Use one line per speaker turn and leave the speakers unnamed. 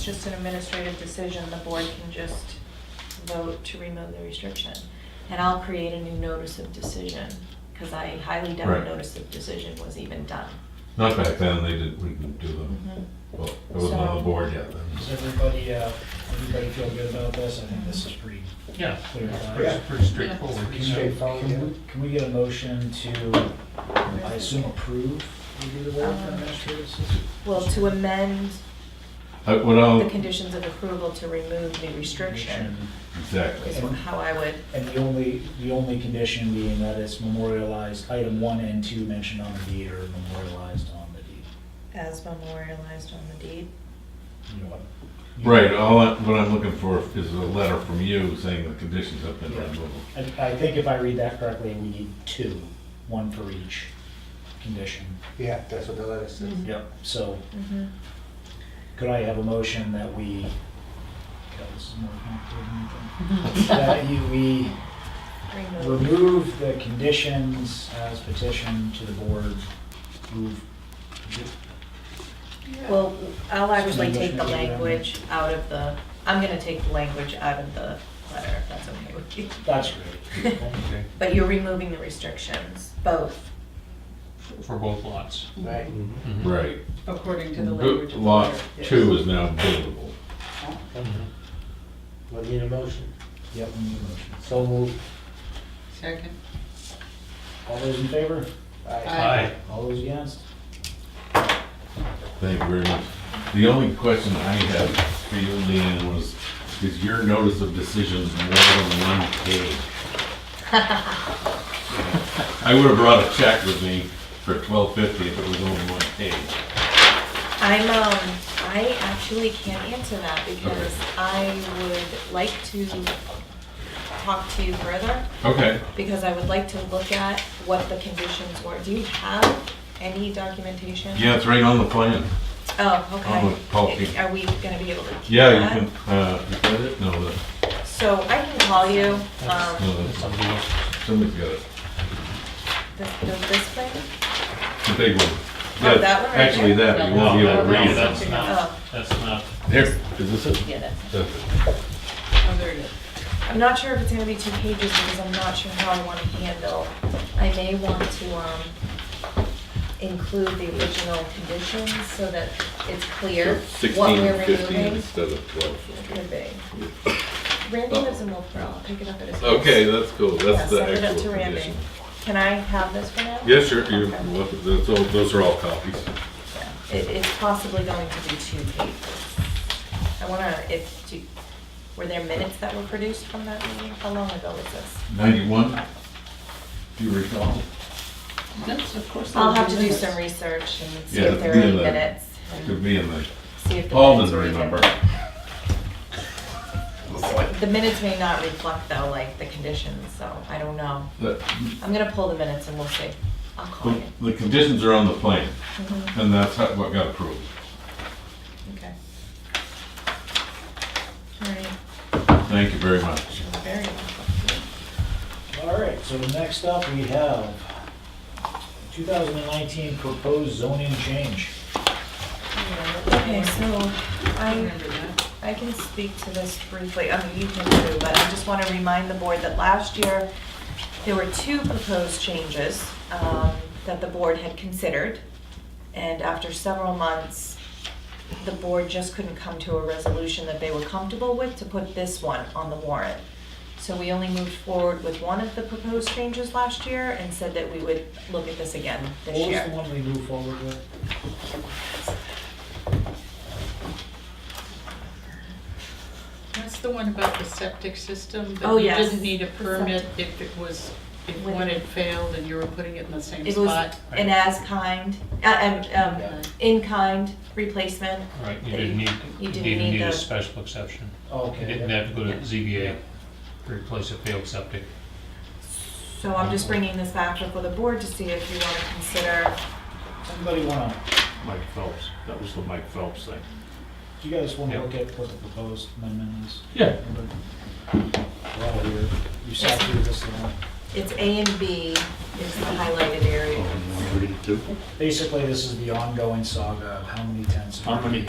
just an administrative decision, the board can just vote to remove the restriction. And I'll create a new notice of decision, because I highly doubt a
Right.
notice of decision was even done.
Not back then, they did, we didn't do them,
Mhm.
well, it wasn't on the board yet
Does
then.
everybody, uh, everybody feel good about this? I think this is pretty
Yeah,
clear. cut.
pretty pretty straightforward.
Can we- Can we- can we get a motion to, I assume, approve the do the board for administrative assistant?
Well, to amend
I- Uh, What
the
Oh.
I'll,
conditions of approval to remove the restriction is
exactly,
how I would,
And the only, the only condition being that it's memorialized, item one and two mentioned on the deed are memorialized on the deed.
as memorialized on the deed.
You know what?
right, all, I- what I'm looking for is a letter from you saying the conditions have been
Yeah.
removed.
I, I think if I read that correctly, we need two, one for each condition.
Yeah, that's what the letter says.
Yep. So
Mhm.
could I have a motion that we, God, this is more complicated than anything. that you, we
Remove.
remove the conditions as petitioned to the board, move,
Well, I'll actually
Should we
take the
motion to amend?
language out of the, I'm gonna take the language out of the letter, if that's okay with you.
that's great.
But you're removing the restrictions, both.
For both lots.
Right.
Mhm.
Right.
According to the language.
Bu-
of the
Lot
letter, yes.
two is now buildable.
Mhm.
We'll need a motion.
Yep, we need a motion.
So moved.
Second.
All those in favor?
Aye.
All those against?
Thank you very much. The only question I have for you, Leanne, was, is your notice of decision more than one page? I would have brought a check with me for twelve fifty if it was only one page.
I'm, um, I actually can't answer that because I would like to talk to you further,
Okay.
because I would like to look at what the conditions were. Do you have any documentation?
Yeah, it's right on the plan.
Oh,
I'll look, Paul,
okay.
you-
Are we gonna be able to? keep
Yeah, you
that?
can, uh, you got it? No, the-
So I can call you, um,
no, that's- somebody's got it.
this, this thing?
The big one.
Oh,
Yeah,
that one right
Actually, that, you won't be able to
No,
read
that's
it.
not-
Oh,
That's not,
Here, is this it?
Yeah, that's,
That's it.
oh, there it is.
I'm not sure if it's gonna be two pages because I'm not sure how I wanna handle. I may want to, um, include the original conditions so that it's clear what we're removing.
of twelve.
Could be. Randy lives in Wolfboro, I'll pick it up at his. house.
Oh. Okay, that's cool,
Yeah,
that's the
send it up to
actual
Randy.
condition.
Can I have this for now?
Yes, sure, you,
Okay.
well, that's all- those are all copies.
Yeah. It, it's possibly going to be two pages. I wanna, if, do- were there minutes that were produced from that meeting? How long ago was this?
Ninety-one, do you recall?
That's, of course.
I'll have to do some research and see
Yeah,
if there are any
yeah, that-
minutes. and
Could be in the,
See if the
Paul
minutes
doesn't
were even-
remember.
The minutes may not reflect though, like the conditions, so I don't know.
The,
I'm gonna pull the minutes and we'll see. I'll call you.
the conditions are on the plan,
Mhm.
and that's how- what got approved.
Okay. All right,
Thank you very much.
you're very welcome.
All right, so next up, we have 2019 proposed zoning change.
Okay, so
I
I,
remember that.
I can speak to this briefly, I mean, you can too, but I just want to remind the board that last year, there were two proposed changes um, that the board had considered. And after several months, the board just couldn't come to a resolution that they were comfortable with to put this one on the warrant. So we only moved forward with one of the proposed changes last year and said that we would look at this again this
What was the
year.
one we moved forward with?
That's the one about the septic system. that
Oh, yes.
You didn't need a permit if it was, if
With-
one had failed and you were putting it in the same
It was
spot.
an as-kind, uh, um, um, in-kind replacement.
right, you didn't need,
You
you
didn't
didn't
need
need
the-
a special exception.
Okay.
You didn't have to go to ZBA to replace a failed septic.
So I'm just bringing this back before the board to see if you want to consider,
Somebody wanna,
Mike Phelps, that was the Mike Phelps thing.
do you guys wanna
Yeah.
look at what the proposed amendment is?
Yeah.
We're all here, you sat through this uh, long.
it's A and B is the highlighted area.
One thirty-two?
Basically, this is the ongoing saga of how many tents.
How many